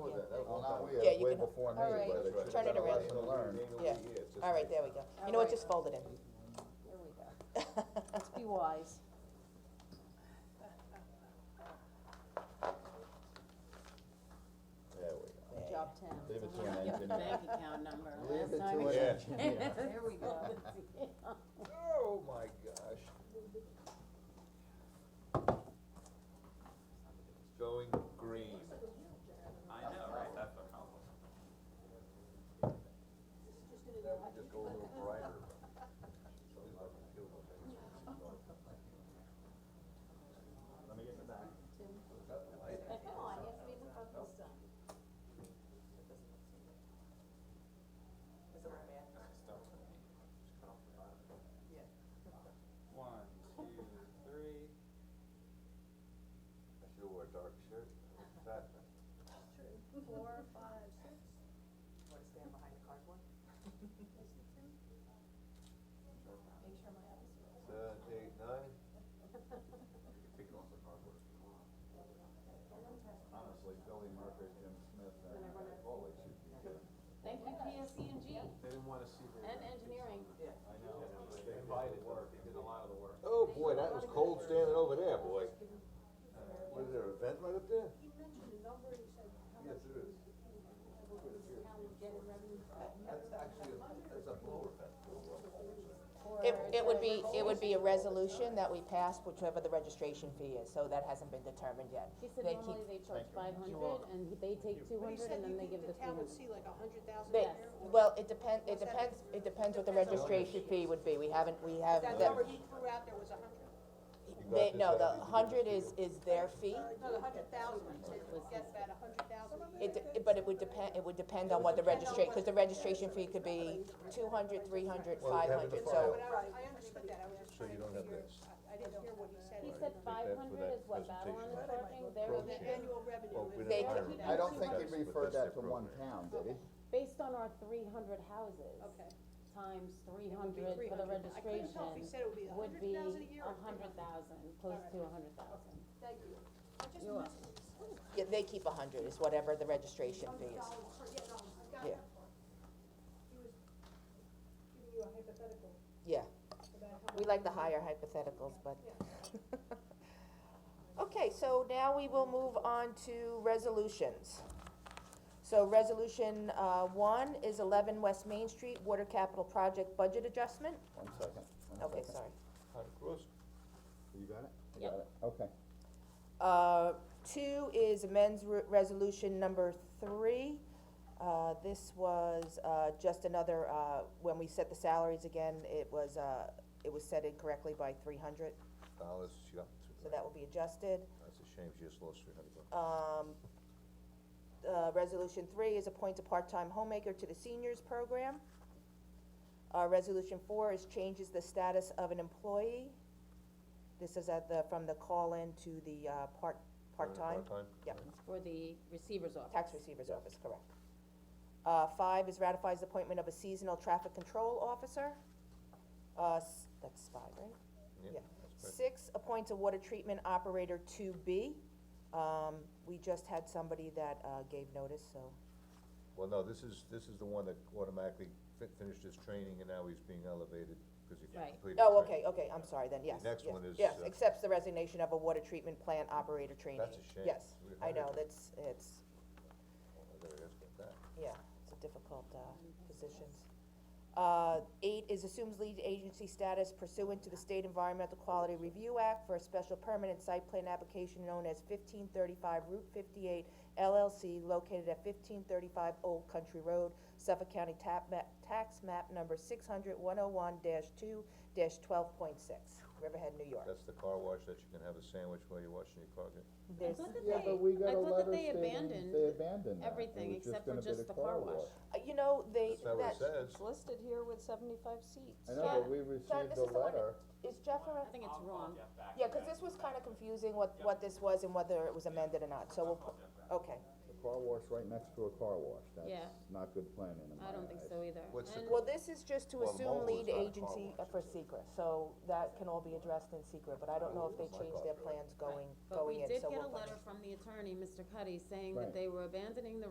that, well, now we Yeah, are you way can- before me, all right. but. Turn it that's a around. lesson learned. Yeah. All right, there we go. You know what, Alright. just fold it in. There we go. Let's be wise. There we There Good you job, go. Tim. Leave it to an Yeah. engineer. bank account number. Leave Last it time to we- an Yeah. engineer. There we go. Oh, my gosh. Going green. I know, right, that's a problem. That would just go a little brighter. Let me get the back. One, two, three. I should wear a dark shirt. That- Four, five, six, Want to stand behind the cardboard? make sure my eyes are. Seven, eight, nine. Honestly, Billy Murphy, Jim Smith, and Foley should be good. Thank you, PSC and G They didn't wanna see the. and engineering. I know, they invited work, they did a lot of the work. Oh, boy, that was cold standing over there, boy. Was there a vent right up there? He mentioned a number, he said, how Yes, much there is. how we get in revenue from that. That's actually, a- that's a blower vent. It, it would be, it would be a resolution that we pass whichever the registration fee is, so that hasn't been determined yet. He said They normally keep- they charge five hundred and he- they take two But he hundred said and you then they give think the the three town hundred. would see like a hundred thousand They, a year? or- well, it depend, it depends, it depends what the registration fee would be, we haven't, we have, That that, number he threw out there was a hundred. uh, they, no, the hundred is, is their fee. No, the hundred thousand, he said, we get about a hundred thousand a year. It, de- it- but it would depend, it would depend on what the registra, cause the registration fee could be two hundred, three hundred, Well, we five have it hundred, defined. so. But I, was- I understood that, I was just So trying you to don't have figure, this. I, I didn't hear what he said. He said that's five for hundred that is what Babylon presentation. is charging, they're, The annual revenue is. They hire keep- him. I don't think he That's- referred that to one town, did he? based on our three hundred houses. Okay. Times three It would hundred be for the 300. I couldn't tell if registration he said it would be a would hundred be a thousand a year hundred thousand, close or three to a hundred thousand. Thank you. I just You're missed it. Yeah, they keep a hundred, is whatever the registration fee is. $100 per- Yeah. yeah, no, I got that part. He was giving you a hypothetical Yeah, about how we like the higher hypotheticals, but. Okay, so now we will move on to resolutions. So resolution, uh, one is eleven West Main Street Water Capital Project Budget Adjustment. One second, one second. Okay, sorry. You got it? You Yep. got it. Okay. Uh, two is amends re- resolution number three. Uh, this was, uh, just another, uh, when we set the salaries again, it was, uh, it was set incorrectly by three hundred, Dollars, she got so that will be adjusted. That's a shame, she just lost three hundred bucks. Um, uh, resolution three is appoint a part-time homemaker to the seniors program. Uh, resolution four is changes the status of an employee. This is at the, from the call-in to the, uh, part, part-time. Yep. For the receiver's office. Tax receiver's office, correct. Uh, five is ratifies the appointment of a seasonal traffic control officer. Uh, s- that's five, right? Yeah. Six, appoints a water treatment operator to be. Um, we just had somebody that, uh, gave notice, so, Well, no, this is, this is the one that automatically fi- finished his training and now he's being elevated because he Right. completed. oh, training. okay, okay, I'm sorry then, yes, next yes, one is, Yes, uh, accepts the resignation of a water treatment plant operator trainee. That's a shame. Yes, We I heard know, it. that's, it's, I gotta ask about that. yeah, it's a difficult, uh, positions. Uh, eight is assumes lead agency status pursuant to the State Environmental Quality Review Act for a special permanent site plan application known as fifteen thirty-five Route fifty-eight LLC located at fifteen thirty-five Old Country Road, Suffolk County tap map, tax map number six hundred one oh one two twelve point six, Riverhead, New York. That's the car wash that you can have a sandwich while you're washing your car. get- There's, I thought that Yeah, they, but we I got a thought that letter they stating they abandoned abandoned that. It everything was except for gonna be just the car wash. uh, you know, they, That's not what it that, says. It's listed here with seventy-five seats. I know, Yeah. but we John, received this a is the one, letter. is Jeff around? I think it's wrong. Yeah, cause this was kinda confusing what, what this was and whether it was amended or not, so we'll, pu- okay. The car wash right next to a car wash, Yeah. that's not good planning in my eyes. I don't think so either. What's the And- Well, this is just to Well, assume mobile is not lead a car agency uh, wash, for secret, so that can all be addressed in secret, but I don't know if they changed their plans going, But we going in, did so get we'll. a letter from the attorney, Mr. Cuddy, saying Right. that they were abandoning the